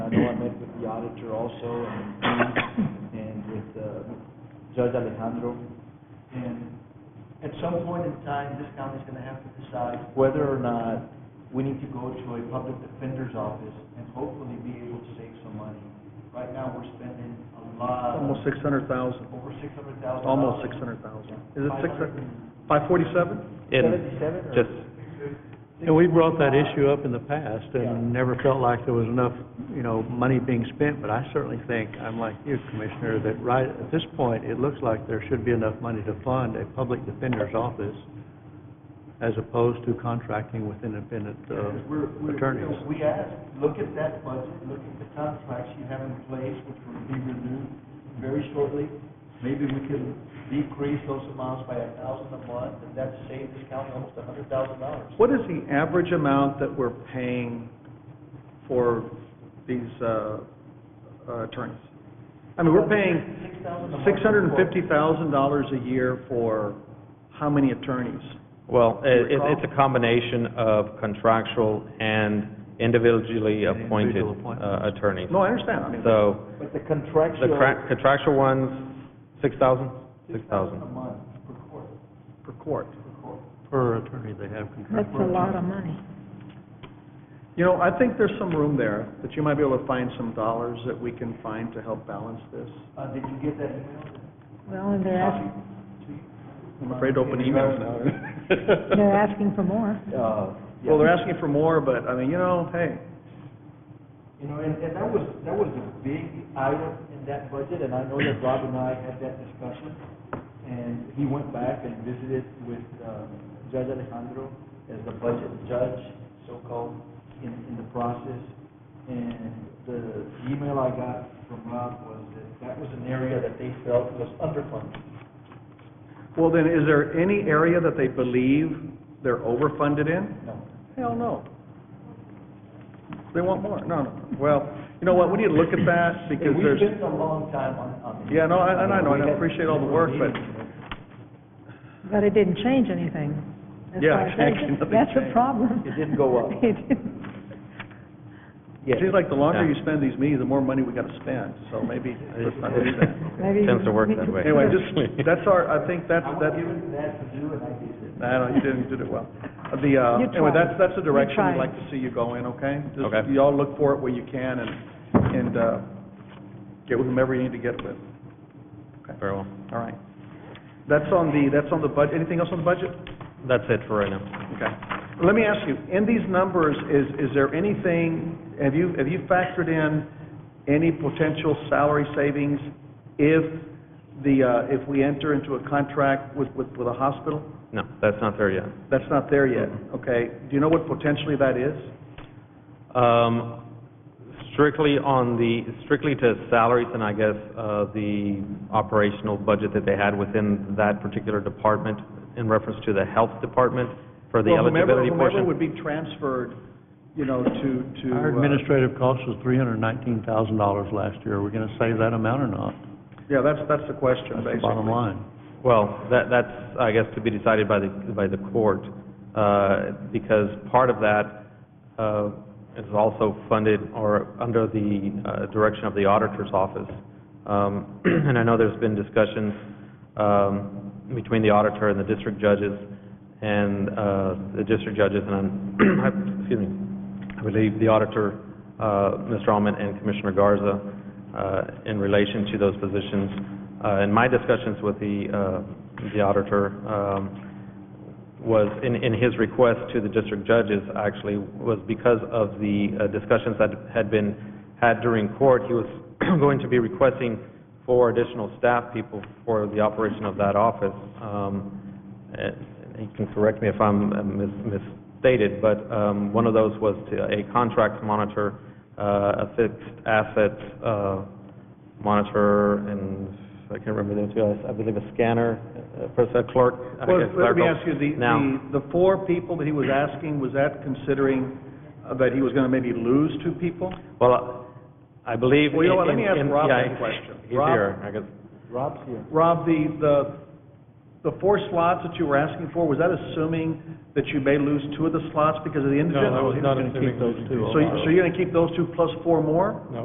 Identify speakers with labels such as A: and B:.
A: ago, I met with the auditor also, and, and with uh, Judge Alejandro,
B: And at some point in time, this county's gonna have to decide
A: whether or not
B: we need to go to a public defender's office and hopefully be able to save some money. Right now, we're spending a lot,
C: Almost six hundred thousand,
B: over six hundred thousand.
C: almost six hundred thousand. Is it six, five forty-seven?
D: And
A: seventy-seven or?
D: just,
C: And we brought that issue up in the past and never felt like there was enough, you know, money being spent, but I certainly think, I'm like you, Commissioner, that right at this point, it looks like there should be enough money to fund a public defender's office as opposed to contracting with independent
B: Because we're,
C: uh,
B: we're,
C: attorneys.
B: we asked, look at that budget, look at the contracts you have in place, which will be renewed very shortly. Maybe we can decrease those amounts by a thousand a month, and that saves this county almost a hundred thousand dollars.
C: What is the average amount that we're paying for these uh, uh, attorneys? I mean, we're paying six hundred and fifty thousand dollars a year for how many attorneys?
D: well,
C: you
D: it,
C: recall?
D: it's a combination of contractual and individually
C: And
D: appointed
C: individual appointments.
D: uh, attorneys.
C: No, I understand, I mean,
D: So,
A: But the
D: the
A: contractual,
D: cra- contractual ones, six thousand? Six
B: A
D: thousand.
B: month per court,
C: per court.
B: per court.
C: Per attorney they have
E: That's a lot of money.
C: You know, I think there's some room there, that you might be able to find some dollars that we can find to help balance this.
B: Uh, did you get that email?
E: Well, and they're asking,
C: I'm afraid to open emails now.
E: they're asking for more.
A: uh,
C: Well, they're
A: yeah,
C: asking for more, but, I mean, you know, hey,
B: You know, and, and that was, that was a big item in that budget, and I know that Rob and I had that discussion. And he went back and visited with, um, Judge Alejandro as the budget judge, so-called, in, in the process. And the email I got from Rob was that that was an area that they felt was underfunded.
C: well then, is there any area that they believe they're overfunded in?
B: No,
C: Hell no. They want more, no, no, well, you know what, we need to look at that, because
B: We've
C: there's,
B: spent a long time on, on this.
C: yeah, no, I- and I know, and I
B: We had-
C: appreciate all the work, but,
E: But it didn't change anything. That's
C: Yeah,
E: why I said
C: actually, nothing
E: That's
C: changed.
E: a problem.
A: It didn't go up.
E: It didn't.
A: yes.
C: it seems like the longer
D: Yeah.
C: you spend these meetings, the more money we gotta spend, so maybe, let's not do that.
E: Maybe
D: Tends to work
E: we-
D: that way.
C: Anyway, just, that's our, I think that's,
B: I was
C: that's,
B: given that to do, and I did it.
C: I don't, you didn't, you did it well. The, uh,
E: You
C: anyway,
E: tried.
C: that's, that's the
E: You
C: direction we'd
E: tried.
C: like to see you go in, okay? Just-
D: Okay.
C: You all look for it where you can and, and, uh, get with whomever you need to get with,
D: Very well.
C: all right? That's on the, that's on the budget, anything else on the budget?
D: That's it for right now.
C: Okay. Let me ask you, in these numbers, is, is there anything, have you, have you factored in any potential salary savings if the, uh, if we enter into a contract with, with, with a hospital?
D: No, that's not there yet.
C: That's not there yet,
F: Mm-hmm.
C: okay? Do you know what potentially that is?
D: Um, strictly on the, strictly to salaries and I guess, uh, the operational budget that they had within that particular department in reference to the health department for the
C: Well, whomever-
D: eligibility
C: Whomever
D: portion.
C: would be transferred, you know, to, to...
F: Our
C: uh,
F: administrative cost was three hundred and nineteen thousand dollars last year. Are we gonna save that amount or not?
C: Yeah, that's, that's the question,
F: That's
C: basically.
F: the bottom line.
D: Well, that, that's, I guess, to be decided by the, by the court, uh, because part of that, uh, is also funded or under the, uh, direction of the auditor's office. Um, and I know there's been discussions, um, between the auditor and the district judges and, uh, the district judges and, I'm- excuse me, I believe the auditor, uh, Mr. Alman and Commissioner Garza, uh, in relation to those positions. Uh, In my discussions with the uh, the auditor, um, was, in in his request to the district judges, actually, was because of the uh, discussions that had been had during court, he was going to be requesting four additional staff people for the operation of that office. Um, and he can correct me if I'm uh, mis- misstated, but um, one of those was to a contract monitor, uh, a fixed assets uh, monitor, and I can't remember the other two, I- I believe a scanner, a person, a clerk. I
C: Well,
D: guess
C: let me
D: clerical.
C: ask you, the,
D: Now,
C: the, the four people that he was asking, was that considering uh, that he was gonna maybe lose two people?
D: well, I believe.
C: Well, you know what, let
D: in-
C: me ask
D: in-
C: Rob
D: yeah,
C: that question.
D: He's
C: Rob?
D: here, I guess.
A: Rob's here.
C: Rob, the, the, the four slots that you were asking for, was that assuming that you may lose two of the slots because of the indigent?
G: No, I was not assuming those two.
C: So, you- so you're gonna keep those two plus four more?